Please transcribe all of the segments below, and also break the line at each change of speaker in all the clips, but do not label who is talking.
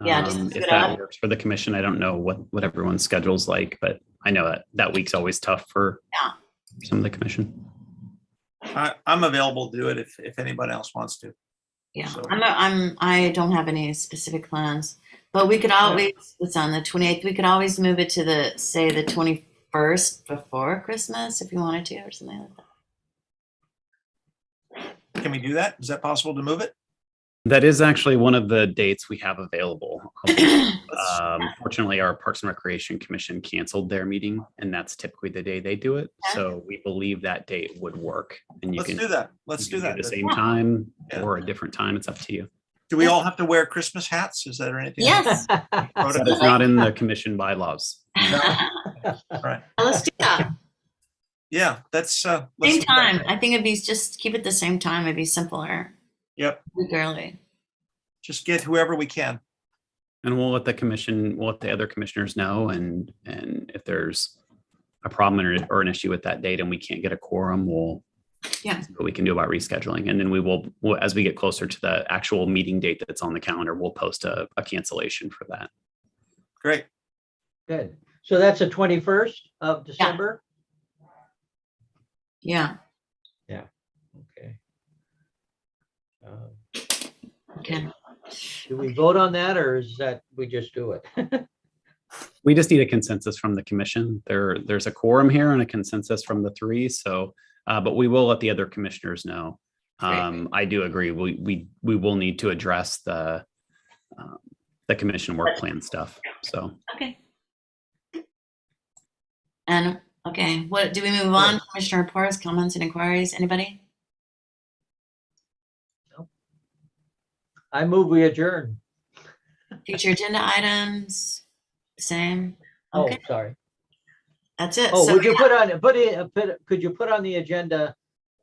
Yeah, just
Um,
keep
If
it
that
up.
works for the commission, I don't know what, what everyone's schedule's like, but I know that that week's always tough for
Yeah.
some of the commission.
I, I'm available to do it if, if anybody else wants to.
Yeah,
So-
I'm, not- I'm, I don't have any specific plans, but we could always, it's on the 28th, we could always move it to the, say, the 21st before Christmas if you wanted to or something like that.
Can we do that? Is that possible to move it?
That is actually one of the dates we have available. Um, Fortunately, our Parks and Recreation Commission canceled their meeting and that's typically the day they do it.
Okay.
So we believe that date would work and you
Let's
can.
do that. Let's
you
do
can
that.
The same time
Yeah.
or a different time. It's up to you.
Do we all have to wear Christmas hats? Is that anything?
Yes. Uh,
But
Protocol?
it's not in the commission bylaws.
Right.
Let's do that.
Yeah, that's, uh. let's
Same
do that.
time. I think it'd be just keep it the same time. It'd be simpler.
Yep.
Week early.
Just get whoever we can.
And we'll let the commission, we'll let the other commissioners know and, and if there's a problem or, or an issue with that date and we can't get a quorum, we'll
Yeah.
see what we can do about rescheduling. And then we will, we'll- as we get closer to the actual meeting date that's on the calendar, we'll post a, a cancellation for that.
Great.
Good. So that's the twenty-first of December?
Yeah.
Okay. Uh,
Okay.
Do we vote on that or is that, we just do it?
We just need a consensus from the commission. There, there's a quorum here and a consensus from the three, so, uh, but we will let the other commissioners know.
Great.
Um, I do agree, we, we, we will need to address the, um, the commission work plan stuff, so.
Okay. And okay, what do we move on? Commissioner reports, comments, and inquiries. Anybody?
I move we adjourn.
Future agenda items. Same.
Oh,
Okay.
sorry.
That's it.
Oh,
So
would you put on, put in, put- could you put on the agenda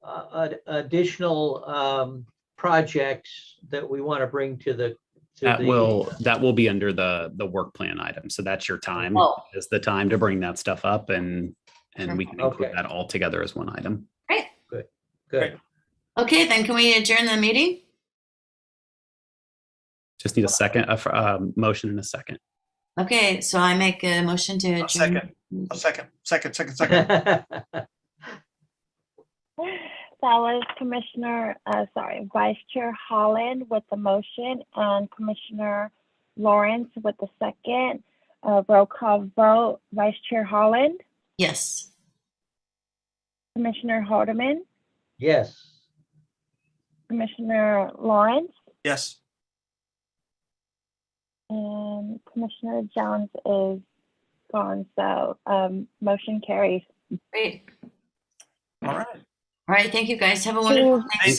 uh, ad- additional um, projects that we want to bring to the? to
That
the-
will, that will be under the, the work plan item. So that's your time,
Oh.
is the time to bring that stuff up and, and we can include
Okay.
that all together as one item.
Good.
Okay, then can we adjourn the meeting?
Just need a second, a, f- a motion and a second.
Okay, so I make a motion to adjourn.
A second, a second, second, second, second.
That was Commissioner, uh, sorry, Vice Chair Holland with the motion and Commissioner Lawrence with the second. Uh, roll call vote, Vice Chair Holland,
Yes.
Commissioner Haldeman,
Yes.
Commissioner Lawrence,
Yes.
and Commissioner Jones is gone, so, um, motion carries.
Great.
All right.
All right. Thank you guys. Have a wonderful night.